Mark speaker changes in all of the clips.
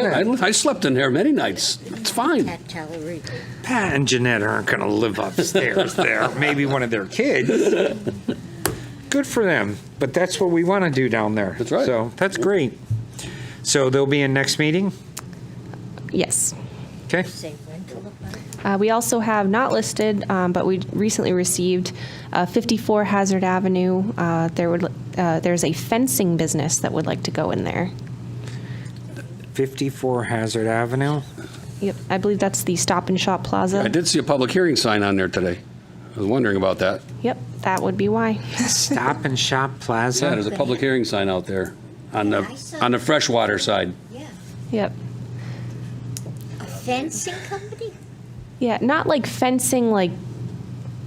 Speaker 1: I,
Speaker 2: Jeanette.
Speaker 1: I slept in there many nights. It's fine.
Speaker 3: At Tallery.
Speaker 2: Pat and Jeanette aren't going to live upstairs there. Maybe one of their kids. Good for them. But that's what we want to do down there.
Speaker 1: That's right.
Speaker 2: So that's great. So there'll be a next meeting.
Speaker 4: Yes.
Speaker 2: Okay.
Speaker 3: Say rental apartment.
Speaker 4: Uh, we also have not listed, um, but we recently received uh, 54 Hazard Avenue. Uh, there would uh, there's a fencing business that would like to go in there.
Speaker 2: 54 Hazard Avenue.
Speaker 4: Yep, I believe that's the Stop and Shop Plaza.
Speaker 1: I did see a public hearing sign on there today. I was wondering about that.
Speaker 4: Yep, that would be why.
Speaker 2: Stop and Shop
Speaker 1: Yeah, there's
Speaker 2: Plaza.
Speaker 1: a public hearing sign out there on
Speaker 3: I
Speaker 1: the
Speaker 3: saw-
Speaker 1: on the freshwater side.
Speaker 3: Yeah.
Speaker 4: yep.
Speaker 3: A fencing company?
Speaker 4: Yeah, not like fencing, like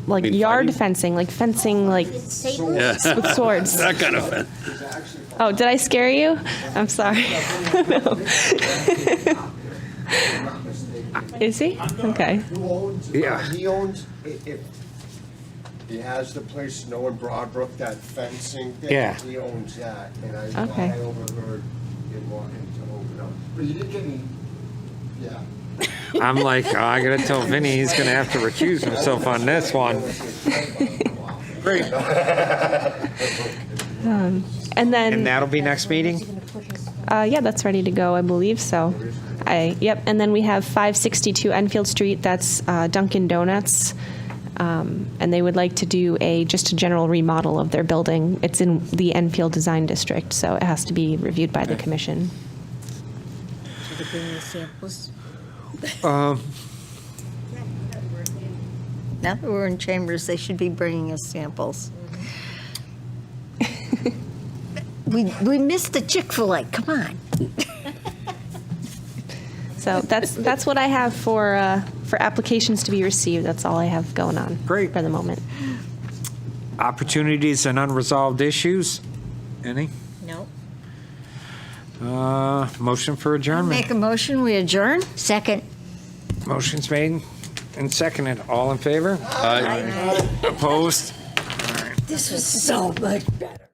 Speaker 4: like
Speaker 1: mean
Speaker 4: yard
Speaker 1: fighting?
Speaker 4: fencing, like fencing, like
Speaker 3: It's Sable?
Speaker 1: Yeah.
Speaker 4: with swords.
Speaker 1: That kind of
Speaker 4: Oh, did I scare you? I'm sorry. No. Is he? Okay.
Speaker 5: Who owns, uh,
Speaker 2: Yeah.
Speaker 5: he owns, i- if, he has the place, you know, in Broadbrook, that fencing thing.
Speaker 2: Yeah.
Speaker 5: He owns that, and I thought
Speaker 4: Okay.
Speaker 5: I overheard him wanting to open up, but he didn't get any, yeah.
Speaker 2: I'm like, oh, I got to tell Vinny he's going to have to recuse himself on this one.
Speaker 1: great.
Speaker 4: And then
Speaker 2: And that'll be next
Speaker 3: Is he
Speaker 2: meeting?
Speaker 3: gonna put his-
Speaker 4: Uh, yeah, that's ready to go, I believe so. I, yep, and then we have 562 Enfield Street, that's uh, Dunkin' Donuts. Um, And they would like to do a, just a general remodel of their building. It's in the Enfield Design District, so it has to be reviewed by the commission.
Speaker 3: Did he bring the samples?
Speaker 6: Now that we're in chambers, they should be bringing us samples.
Speaker 3: We, we missed the Chick-fil-A, come on.
Speaker 4: So that's, that's what I have for, uh, for applications to be received. That's all I have going on.
Speaker 2: Great.
Speaker 4: For the moment.
Speaker 2: Opportunities and unresolved issues. Any?
Speaker 3: No.
Speaker 2: Uh, motion for adjournment.
Speaker 6: Make a motion, we adjourn?
Speaker 3: Second.
Speaker 2: Motion's made and seconded. All in favor?
Speaker 1: Uh,
Speaker 2: Opposed?
Speaker 3: This was so much better.